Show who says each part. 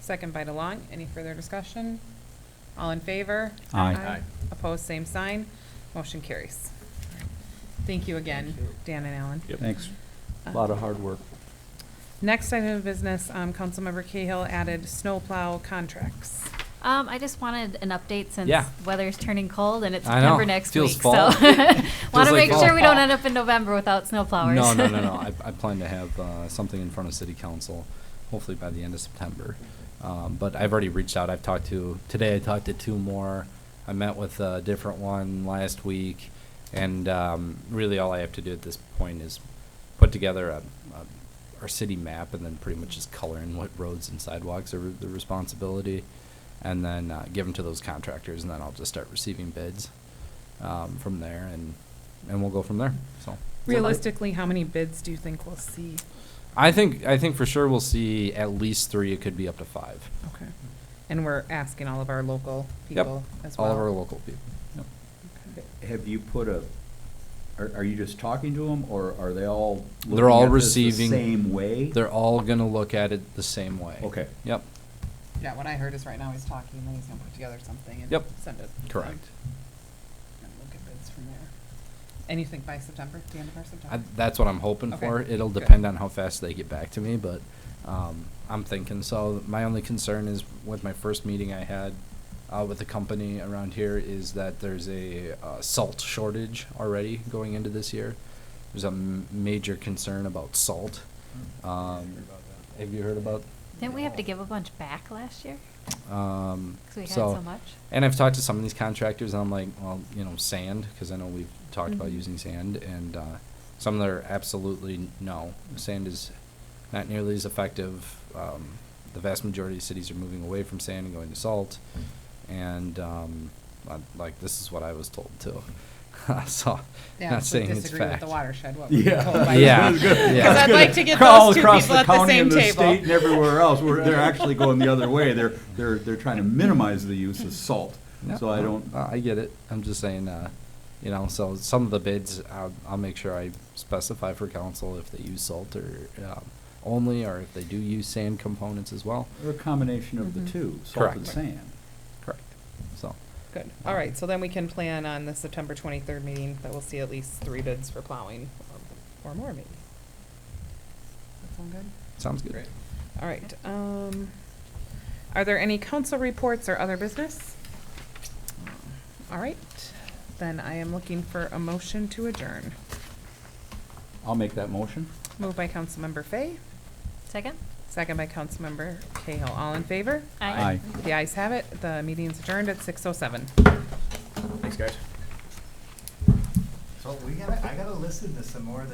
Speaker 1: Second by DeLong. Any further discussion? All in favor?
Speaker 2: Aye.
Speaker 3: Aye.
Speaker 1: Opposed, same sign. Motion carries. Thank you again, Dan and Alan. Uh,
Speaker 3: Yep.
Speaker 2: Thanks. A Lot of hard work.
Speaker 1: Next item of business, um, Councilmember Cahill added snowplow contracts.
Speaker 4: Um, I just wanted an update since
Speaker 2: Yeah.
Speaker 4: weather's turning cold and it's
Speaker 2: I know.
Speaker 4: September next
Speaker 2: Feels
Speaker 4: week.
Speaker 2: fall.
Speaker 4: So want
Speaker 2: like
Speaker 4: to make
Speaker 2: fall.
Speaker 4: sure we don't end up in November without snowflowers.
Speaker 2: No, no, no, no. I, I plan to have uh, something in front of city council, hopefully by the end of September. Um, but I've already reached out. I've talked to today. I talked to two more. I met with a different one last week, and um, really all I have to do at this point is put together a, a our city map and then pretty much just color in what roads and sidewalks are the responsibility, and then uh, give them to those contractors, and then I'll just start receiving bids um, from there, and and we'll go from there. So.
Speaker 1: Realistically, how many bids do you think we'll see?
Speaker 2: I think I think for sure we'll see at least three. It could be up to five.
Speaker 1: Okay. And we're asking all of our local
Speaker 2: Yep.
Speaker 1: people as well.
Speaker 2: All of our local people. Yep.
Speaker 1: Okay.
Speaker 3: Have you put a, are, are you just talking to them, or are they all?
Speaker 2: They're
Speaker 3: looking
Speaker 2: all
Speaker 3: at this the
Speaker 2: receiving-
Speaker 3: Same way?
Speaker 2: They're all gonna look at it the same way.
Speaker 3: Okay.
Speaker 2: Yep.
Speaker 1: Yeah, what I heard is right now he's talking, and then he's gonna put together something and
Speaker 2: Yep.
Speaker 1: send it.
Speaker 2: Correct.
Speaker 1: And we'll get bids from there. And you think by September, the end of our
Speaker 2: I,
Speaker 1: September?
Speaker 2: that's what I'm hoping
Speaker 1: Okay.
Speaker 2: for. It'll
Speaker 1: Good.
Speaker 2: depend on how fast they get back to me, but um, I'm thinking so. My only concern is with my first meeting I had uh, with the company around here is that there's a uh, salt shortage already going into this year. There's a m- major concern about salt. Um, have you heard about?
Speaker 4: Didn't we have to give a bunch back last year?
Speaker 2: Um,
Speaker 4: Because we had
Speaker 2: so,
Speaker 4: so much.
Speaker 2: And I've talked to some of these contractors, and I'm like, well, you know, sand, because I know we've talked about
Speaker 4: Mm-hmm.
Speaker 1: Mhm.
Speaker 2: using sand, and uh, some that are absolutely n- no. Sand is not nearly as effective. Um, the vast majority of cities are moving away from sand and going to salt, and um, I, like this is what I was told too. so,
Speaker 1: Yeah,
Speaker 2: not
Speaker 1: so
Speaker 2: saying it's
Speaker 1: Disagree with
Speaker 2: fact.
Speaker 1: the watershed, what we
Speaker 3: Yeah.
Speaker 1: told by.
Speaker 2: Yeah.
Speaker 3: That's good.
Speaker 2: Yeah. 'Cause I'd
Speaker 3: That's
Speaker 2: like
Speaker 3: good.
Speaker 1: to get
Speaker 3: All
Speaker 1: those two
Speaker 3: across
Speaker 1: people at the
Speaker 3: county
Speaker 1: same
Speaker 3: and
Speaker 1: table.
Speaker 3: state and everywhere else, we're, they're actually going the other way. They're, they're, they're trying to minimize the use of salt.
Speaker 2: Yeah,
Speaker 3: So I
Speaker 2: no,
Speaker 3: don't,
Speaker 2: no, I get it. I'm just saying, uh, you know, so some of the bids, I'll, I'll make sure I specify for council if they use salt or, um, only, or if they do use sand components as well.
Speaker 3: they're a combination of
Speaker 1: Mhm.
Speaker 3: the two,
Speaker 2: Mm-hmm.
Speaker 3: salt and
Speaker 2: Correct.
Speaker 3: sand.
Speaker 2: Correct. So,
Speaker 1: Good, all right, so then we can plan on the September twenty-third meeting that we'll see at least three bids for plowing, or- or more maybe. That sound good?
Speaker 2: sounds good.
Speaker 1: Great. All right, um, are there any council reports or other business? All right, then I am looking for a motion to adjourn.
Speaker 3: I'll make that motion.
Speaker 1: Moved by Councilmember Fay,
Speaker 4: Second?
Speaker 1: second by Councilmember Cahill. All in favor?
Speaker 3: Aye.
Speaker 1: The ayes have it. The meeting's adjourned at six oh seven.
Speaker 5: So we gotta, I gotta listen to some more of the